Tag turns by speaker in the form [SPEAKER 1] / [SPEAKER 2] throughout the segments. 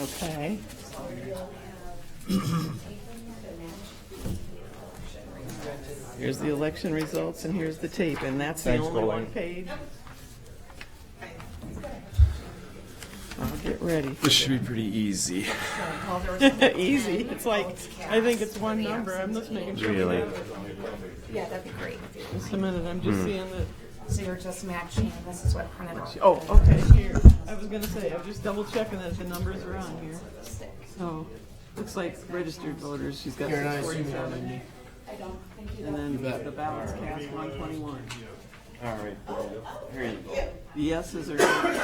[SPEAKER 1] Okay. Here's the election results and here's the tape, and that's the
[SPEAKER 2] Thanks,
[SPEAKER 1] only one
[SPEAKER 2] Colleen.
[SPEAKER 1] page. I'll get ready.
[SPEAKER 2] This should be pretty easy.
[SPEAKER 1] Easy. It's like, I think it's one number. I'm just making sure. we
[SPEAKER 2] Really?
[SPEAKER 1] have it.
[SPEAKER 3] Yeah, that'd be great.
[SPEAKER 1] Just a minute, I'm
[SPEAKER 2] Hmm.
[SPEAKER 1] just seeing that.
[SPEAKER 3] So you're just matching, this is what printed off.
[SPEAKER 1] Oh, okay, here. I was gonna say, I'm just double checking that the numbers are on here. So, looks like registered voters, she's got six forty-seven. And then the ballots cast one twenty-one.
[SPEAKER 2] All right, here you go.
[SPEAKER 1] The yeses are, nine,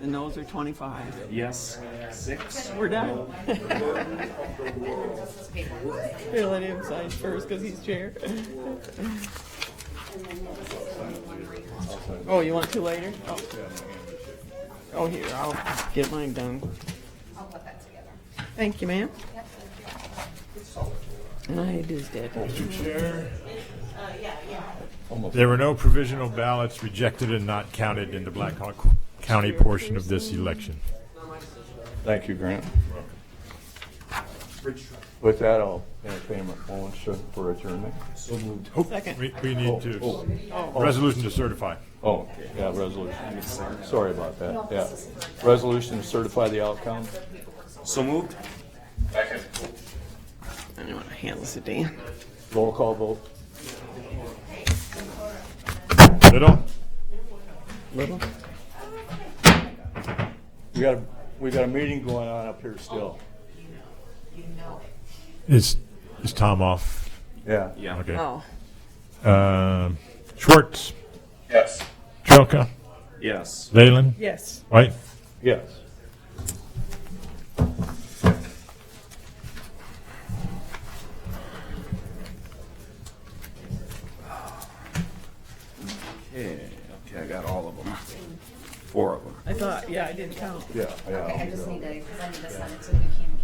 [SPEAKER 1] the noes are twenty-five.
[SPEAKER 2] Yes, six.
[SPEAKER 1] We're done. Here, let him sign first, cause he's chair. Oh, you want two later? Oh. Oh, here, I'll get mine done.
[SPEAKER 3] I'll put that together.
[SPEAKER 1] Thank you, ma'am. And I is dead.
[SPEAKER 4] There were no provisional ballots rejected and not counted in the Black Hawk County portion of this election.
[SPEAKER 2] Thank you, Grant. With that, I'll entertain a motion for adjournment.
[SPEAKER 4] Oh,
[SPEAKER 1] Second.
[SPEAKER 4] We, we need to,
[SPEAKER 2] Oh,
[SPEAKER 4] resolution to certify.
[SPEAKER 2] oh, yeah, resolution. Sorry about that, yeah. Resolution to certify the outcome.
[SPEAKER 5] So moved?
[SPEAKER 1] I don't want to hand this to Dan.
[SPEAKER 2] Roll call vote.
[SPEAKER 4] Little?
[SPEAKER 1] Little?
[SPEAKER 2] We got, a we got a meeting going on up here still.
[SPEAKER 4] Is, is Tom off?
[SPEAKER 2] Yeah.
[SPEAKER 5] Yeah.
[SPEAKER 4] Okay.
[SPEAKER 1] Oh.
[SPEAKER 4] Um, Schwartz,
[SPEAKER 5] Yes.
[SPEAKER 4] Jelka,
[SPEAKER 5] Yes.
[SPEAKER 4] Leyland,
[SPEAKER 1] Yes.
[SPEAKER 4] White.
[SPEAKER 2] Yes.
[SPEAKER 5] Okay, okay, I got all of them. Four of them.
[SPEAKER 1] I thought, yeah, I didn't count.
[SPEAKER 2] Yeah, yeah.
[SPEAKER 3] I just need to, because I need to send it to Buchanan.